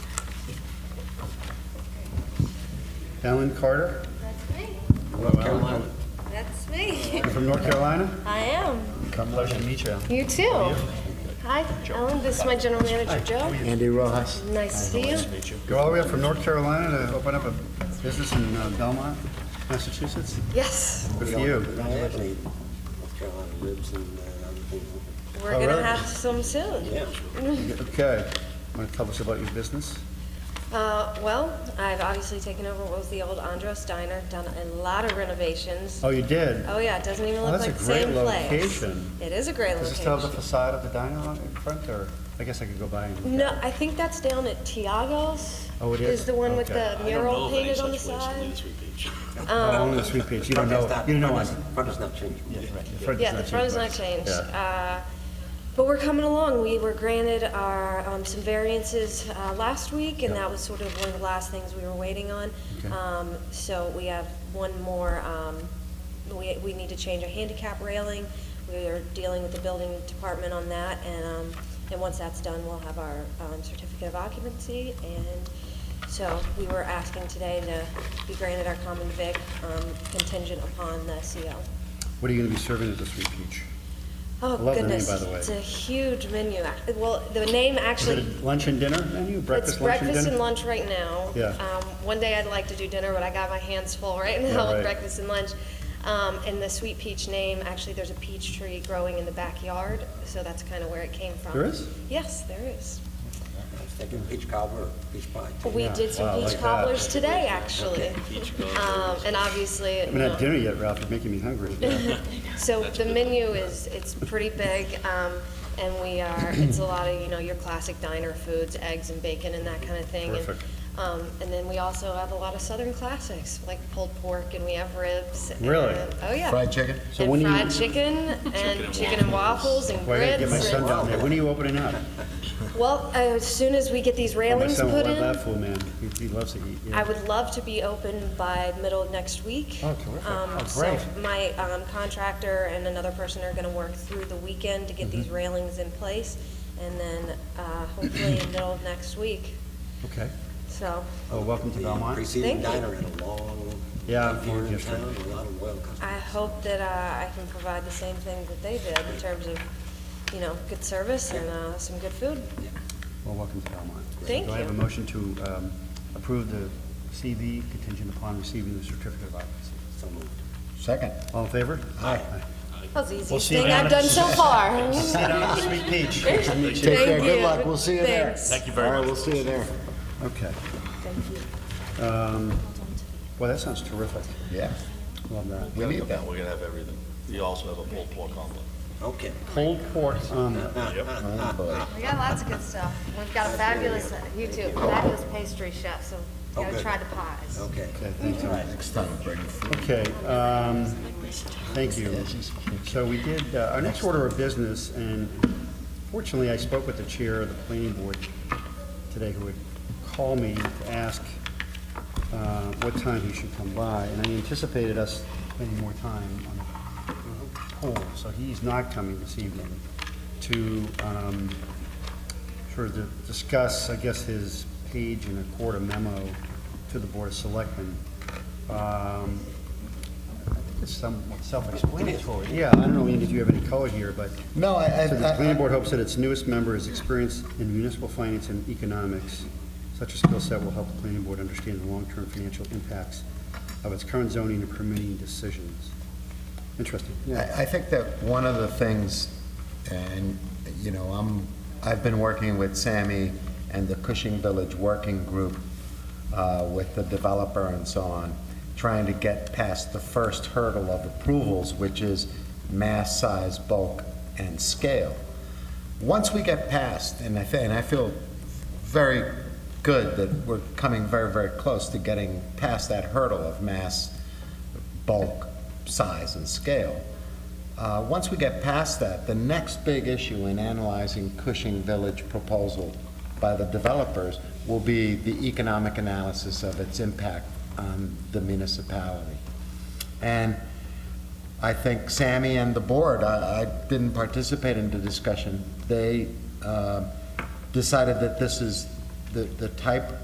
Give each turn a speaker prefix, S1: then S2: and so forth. S1: Ellen Carter,
S2: That's me.
S1: North Carolina.
S2: That's me.
S1: You're from North Carolina?
S2: I am.
S1: Pleasure to meet you.
S2: You too. Hi, Ellen. This is my general manager, Joe.
S3: Andy Rojas.
S2: Nice to see you.
S1: Go all the way up from North Carolina to open up a business in uh, Belmont, Massachusetts?
S2: Yes,
S1: Good for you.
S3: I have any North Carolina ribs and uh, other things.
S2: we're
S1: All
S2: gonna
S1: right.
S2: have some soon.
S3: Yeah.
S1: Okay. Want to tell us about your business?
S2: Uh, well, I've obviously taken over what was the old Andros Diner, done a lot of renovations.
S1: Oh, you did?
S2: Oh yeah, it doesn't even
S1: Well,
S2: look
S1: that's
S2: like
S1: a
S2: the
S1: great
S2: same place.
S1: location.
S2: It is a great
S1: Does it still have the
S2: location.
S1: facade of the diner on in front, or, I guess I could go by and look at it.
S2: No, I think that's down at Tiago's.
S1: Oh, it is?
S2: the one with
S1: Okay.
S2: the mural painted on the side.
S1: Oh,
S2: Um,
S1: Only the sweet peach, you don't know, you don't know one.
S3: Front is not changed.
S2: Yeah, the front is not changed. Uh, But we're coming along. We were granted our, um, some variances uh, last week, and
S1: Yeah.
S2: that was sort of one of the last things we were waiting on.
S1: Okay.
S2: Um, So we have one more, um, we, we need to change our handicap railing. We are dealing with the building department on that, and, um, and once that's done, we'll have our um, certificate of occupancy. And so we were asking today to be granted our common vic um, contingent upon the CO.
S1: What are you going to be serving at the sweet peach?
S2: Oh,
S1: I love the name,
S2: goodness.
S1: by the way.
S2: It's a huge menu. Ac- Well, the name
S1: Is it
S2: actually,
S1: a lunch and dinner menu,
S2: it's
S1: breakfast, lunch and
S2: breakfast and
S1: dinner?
S2: lunch right now.
S1: Yeah.
S2: Um, One day I'd like to do dinner, but I got my hands full right
S1: Yeah,
S2: now
S1: right.
S2: with breakfast and lunch. Um, And the sweet peach name, actually, there's a peach tree growing in the backyard, so that's kind of where it came from.
S1: There is?
S2: Yes, there is.
S3: I was thinking peach cobbler, peach pie. too.
S2: We
S1: Yeah.
S2: did
S1: Wow,
S2: some
S1: like
S2: peach
S1: that.
S2: cobbler's today, actually. Um, And obviously,
S1: I
S2: you
S1: haven't
S2: know.
S1: had dinner yet, Ralph, you're making me hungry.
S2: So the menu is, it's pretty big, um, and we are, it's a lot of, you know, your classic diner foods, eggs and bacon and that kind of thing. And,
S1: Perfect.
S2: Um, and then we also have a lot of southern classics, like pulled pork, and we have ribs.
S1: Really?
S2: and- Oh, yeah.
S4: Fried chicken?
S1: So when
S2: And
S1: do you-
S2: fried chicken, and chicken and waffles, and
S1: Well, I gotta
S2: grits.
S1: get my son
S2: and-
S1: down there, when are you opening up?
S2: Well, as soon as we get these
S1: My
S2: railings
S1: son will
S2: put
S1: love
S2: in,
S1: that fool, man, he he loves to eat. yeah.
S2: I would love to be open by middle of next week.
S1: Oh, terrific.
S2: Um,
S1: Oh,
S2: so
S1: great.
S2: My um, contractor and another person are going to work through the weekend to
S1: Mm-hmm.
S2: get these railings in place, and then uh, hopefully in middle of next week,
S1: Okay,
S2: so
S1: oh, welcome to Belmont.
S3: Preceding
S2: Thank you.
S3: diner in a long,
S1: Yeah,
S3: here in
S1: yes, sir.
S3: town, a lot of loyal customers.
S2: I hope that uh, I can provide the same things that they did in terms of, you know, good service and uh, some good food.
S1: Well, welcome to Belmont.
S2: Thank
S1: Do I have a
S2: you.
S1: motion to um, approve the CV contingent upon receiving the certificate of occupancy?
S3: So moved.
S4: Second.
S1: All in favor? Aye.
S2: That was the easiest
S1: see you
S2: thing
S1: down at-
S2: I've done so far.
S1: See you down at the Sweet Peach. Good to meet you.
S4: Take care,
S2: Thank
S4: good
S2: you.
S4: luck, we'll see you there.
S2: Thanks.
S5: Thank you very
S4: All
S5: much.
S4: right, we'll see you there.
S1: Okay,
S2: Thank you.
S1: well, that sounds terrific,
S4: Yeah,
S1: love that.
S4: we need that.
S5: We're gonna have everything. You also have a pulled pork omelet.
S3: Okay.
S1: Cold pork omelet.
S4: Oh, boy.
S2: We got lots of good stuff. We've got a fabulous, you too, fabulous pastry chef, so
S3: Oh, gotta good. try
S2: the pies.
S3: Okay.
S1: Okay, thank you.
S4: Next time, bring food.
S1: Okay, um, thank you. So we did, uh, our next order of business, and fortunately, I spoke with the chair of the planning board today, who would call me to ask uh, what time he should come by, and I anticipated us spending more time on the poll, so he's not coming this evening to um, sort of to discuss, I guess, his page and a quarter memo to the Board of Selectmen. Um, I think It's somewhat self-explanatory. Yeah, I don't know, Ian, if you have any color here, but
S4: No, I, I,
S1: so the
S4: I-
S1: planning board hopes that its newest member is experienced in municipal finance and economics. Such a skill set will help the planning board understand the long-term financial impacts of its current zoning and permitting decisions. Interesting.
S4: I I think that one of the things, and, you know, I'm, I've been working with Sammy and the Cushing Village Working Group uh, with the developer and so on, trying to get past the first hurdle of approvals, which is mass, size, bulk, and scale. Once we get past, and I, thi- and I feel very good that we're coming very, very close to getting past that hurdle of mass, bulk, size, and scale. Uh, Once we get past that, the next big issue in analyzing Cushing Village proposal by the developers will be the economic analysis of its impact on the municipality. And I think Sammy and the board, I I didn't participate in the discussion, they uh, decided that this is the the type